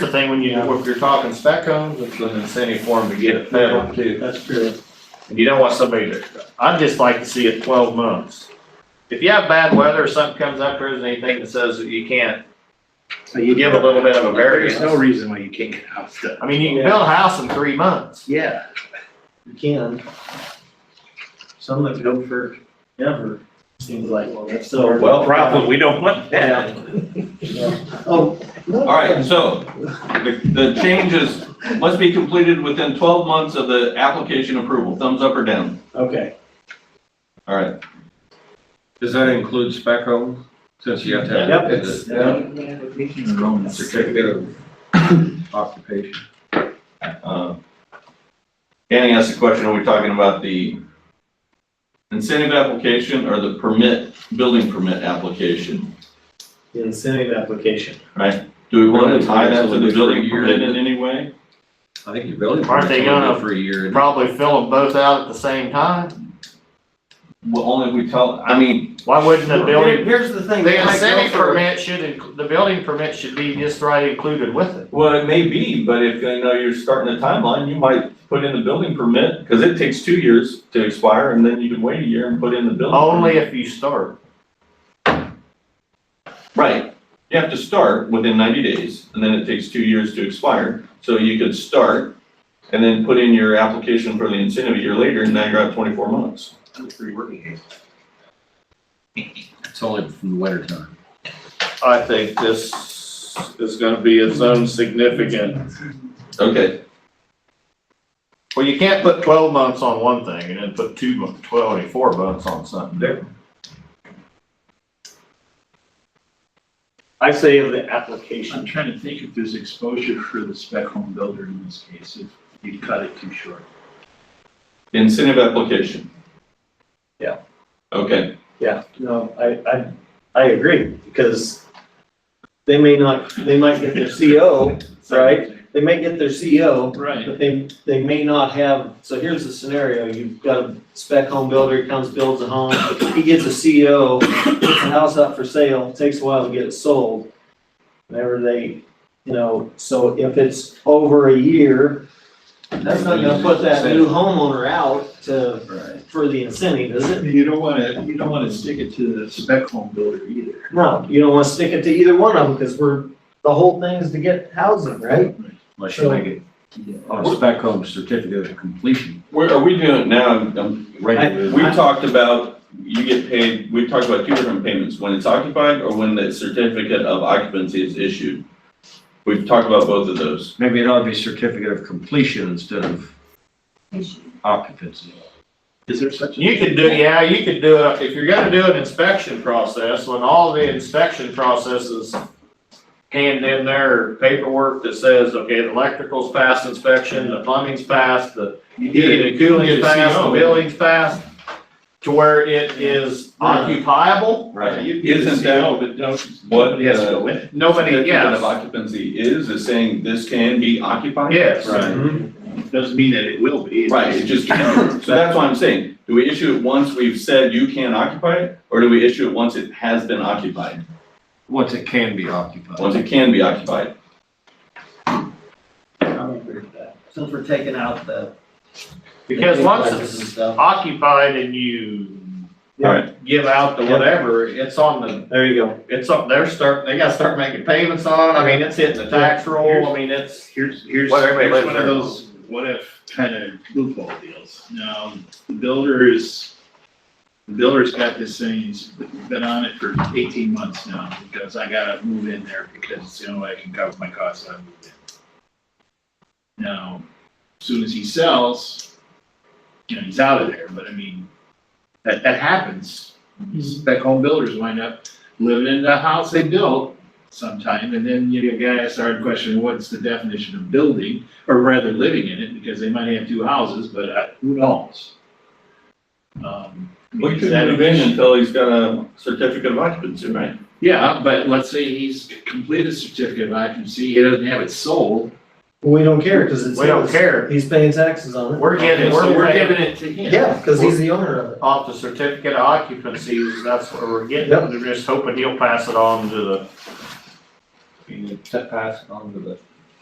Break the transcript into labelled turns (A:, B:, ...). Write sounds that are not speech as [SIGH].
A: The thing when you, if you're talking spec homes, it's an incentive for them to get it settled too.
B: That's true.
A: And you don't want somebody to, I'd just like to see it twelve months. If you have bad weather or something comes up, there isn't anything that says that you can't,
C: So you
A: give a little bit of a
C: There's no
A: variance.
C: reason why you can't get out stuff.
A: I mean, you can build a house in three months.
C: Yeah,
B: You can. Some have go for ever, seems like, so.
D: Well, problem, we don't want that. [LAUGHS]
B: Oh.
D: All right, so the, the changes must be completed within twelve months of the application approval. Thumbs up or down?
B: Okay.
D: All right.
E: Does that include spec homes? Since you have to have.
B: Yep, it's-
E: Yeah,
B: Certificate.
E: Certificate of occupation.
D: Uh, Danny asked a question, are we talking about the incentive application or the permit, building permit application?
B: The incentive application.
D: Do we want to tie that to the building permit in any way?
E: I think your building.
A: Aren't they
E: permit's only good
A: gonna-
E: For a year.
A: Probably fill them both out at the same time.
D: Well, only if we tell, I mean,
A: Why wouldn't the
B: Here-
A: building,
B: Here's the thing. they
A: the
B: might go
A: incentive
B: for-
A: permit should, inc- the building permit should be just right included with it.
D: well, it may be, but if, you know, you're starting the timeline, you might put in the building permit, because it takes two years to expire, and then you can wait a year and put in the building. permit.
A: Only if you start.
D: Right. You have to start within ninety days, and then it takes two years to expire. So you could start and then put in your application for the incentive a year later, and now you're at twenty-four months.
E: It's only from the winter time.
A: I think this is gonna be its own significant
D: Okay.
A: Well, you can't put twelve months on one thing and then put two, mon- twelve and four months on something different.
B: I say of the
C: I'm
B: application.
C: trying to think if there's exposure for the spec home builder in this case, if you cut it too short.
D: The Incentive application.
B: Yeah.
D: Okay,
B: Yeah, no, I, I, I agree, because they may not, they might get their CO, right? They may get their CO,
C: Right.
B: But they, they may not have, so here's the scenario, you've got a spec home builder, he comes, builds a home, he gets a CO, puts the house up for sale, takes a while to get it sold. Whenever they, you know, so if it's over a year, that's not gonna put that new homeowner out to,
C: Right.
B: for the incentive, is it?
C: You don't wanna, you don't wanna stick it to the spec home builder either.
B: No, you don't wanna stick it to either one of them, because we're, the whole thing is to get housing, right?
E: Unless
B: So-
E: you make it on Oh, a spec home certificate of completion.
D: where are we doing it now? Um, We talked about, you get paid, we talked about two different payments, when it's occupied or when the certificate of occupancy is issued. We've talked about both of those.
E: Maybe it ought to be certificate of completion instead of occupancy.
C: Is there such a?
A: You could do, yeah, you could do it, if you're gonna do an inspection process, when all the inspection processes hand in their paperwork that says, okay, the electrical's passed inspection, the plumbing's passed, the
C: You
A: heating and cooling's
C: You get a
A: passed, the
C: CO.
A: building's passed, to where it is occupiable.
D: Right.
C: You get a
D: Isn't that
C: CO, but don't.
D: What,
C: Nobody has to
D: uh,
C: go in it.
A: Nobody,
D: Certificate of
A: yes,
D: occupancy is, is saying this can be occupied?
A: Yes.
D: Right,
C: Doesn't mean that it will be.
D: right, it just can. So that's what I'm saying. Do we issue it once we've said you can occupy it? Or do we issue it once it has been occupied,
E: Once it can be
D: once
E: occupied.
D: it can be occupied?
F: Since we're taking out the.
A: because once it's
F: And stuff.
A: occupied and you
B: Yeah.
D: Alright.
A: give out the whatever, it's on the,
B: There you go.
A: it's up, they're start, they gotta start making payments on, I mean, it's hitting the tax roll, I mean, it's.
C: Here's, here's,
A: Well, everybody
C: here's
A: lives
C: one of
A: there.
C: those what if kind of loophole deals. Now, the builders, the builder's got this thing, he's been on it for eighteen months now, because I gotta move in there because it's the only way I can cover my costs, I move in. Now, as soon as he sells, you know, he's out of there, but I mean, that, that happens. Spec home builders wind up living in the house they built, sometime, and then you get guys started questioning what's the definition of building, or rather living in it, because they might have two houses, but uh, who knows? Um,
D: We
C: is
D: could
C: that an
D: move in
C: issue?
D: until he's got a certificate of occupancy, right?
C: Yeah, but let's say he's completed certificate of occupancy, he doesn't have it sold.
B: We don't care, because it's.
A: We don't
B: his.
A: care.
B: He's paying taxes on it.
A: We're
C: Okay,
A: getting,
C: so
A: we're
C: we're giving
A: paying
C: it to him.
B: Yeah, because he's the owner of it.
A: off the certificate of occupancy, that's what we're getting,
B: Yep.
A: we're just hoping he'll pass it on to the.
E: Pass it on to the